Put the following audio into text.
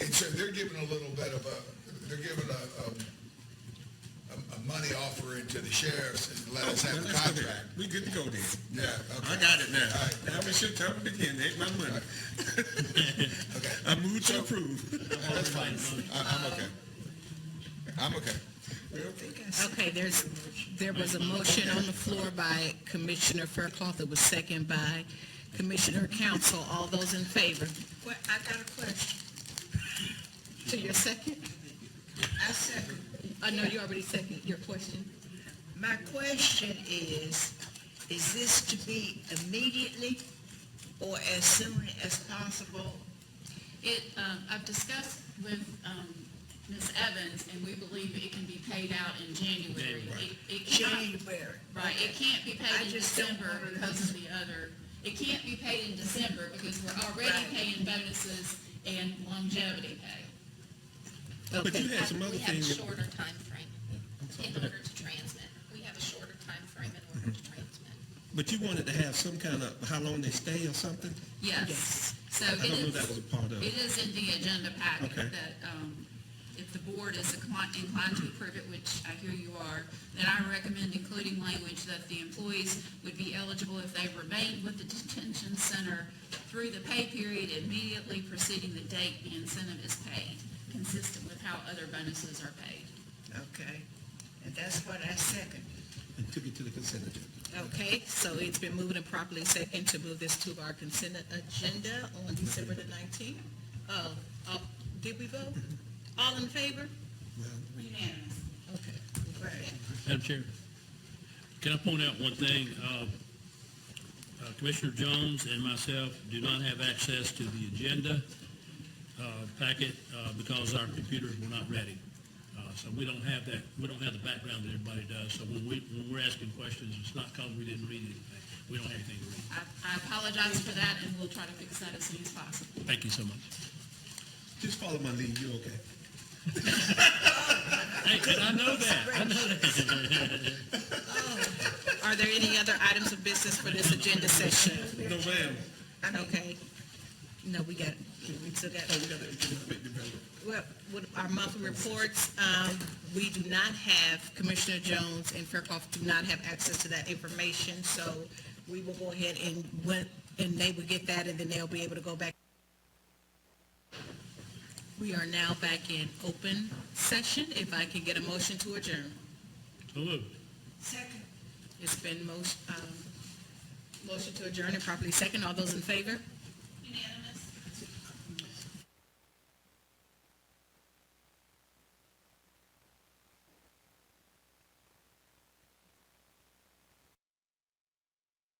giving a little bit of a, they're giving a, um, a, a money offering to the sheriffs and let us have a Let's go there. contract. We good to go there. Yeah, I okay, got it now. All right. Now it's your time to begin. Ain't my money. okay. I move to approve. That's fine. I, I'm okay. I'm okay. Okay, there's, there was a motion on the floor by Commissioner Faircloth. It was second by Commissioner Council. All those in favor? Well, I got a question. To your second? I second. Uh, no, you already seconded your question. My question is, is this to be immediately or as soon as possible? It, um, I've discussed with um, Ms. Evans, and we believe it can be paid out in January. It- It can't, January. right, it can't be I paid in just don't December wanna- because of the other, it can't be paid in December because we're already Right. paying bonuses and longevity pay. But you Okay, had some other We have a things. shorter timeframe in order to transmit. We have a shorter timeframe in order to transmit. But you wanted to have some kind of how long they stay or something? Yes, so I it don't know is, that was a part of it it. is in the agenda packet Okay. that, um, if the board is inclined inclined to approve it, which I hear you are, then I recommend including language that the employees would be eligible if they remained with the detention center through the pay period immediately preceding the date the incentive is paid, consistent with how other bonuses are paid. Okay, and that's what I second. And took it to the consent agenda. okay, so it's been moved and properly second to move this to our consent agenda on December the nineteenth. Uh, uh, did we vote? All in favor? Unanimous. Okay. Right. Madam Chair, can I point out one thing? Uh, uh, Commissioner Jones and myself do not have access to the agenda uh, packet uh, because our computers were not ready. Uh, So we don't have that, we don't have the background that everybody does. So when we, when we're asking questions, it's not because we didn't read anything. We don't have anything to read. I, I apologize for that, and we'll try to fix that as soon as possible. Thank you so much. Just follow my lead, you okay? Hey, and I know that. I know that. Are there any other items of business for this agenda session? No, ma'am. Okay. No, we got, we still got, Oh, we got to. well, with our monthly reports, um, we do not have, Commissioner Jones and Faircloth do not have access to that information, so we will go ahead and, when- and they will get that, and then they'll be able to go back. We are now back in open session. If I can get a motion to adjourn. So moved. Second. It's been most, um, motion to adjourn and properly second. All those in favor?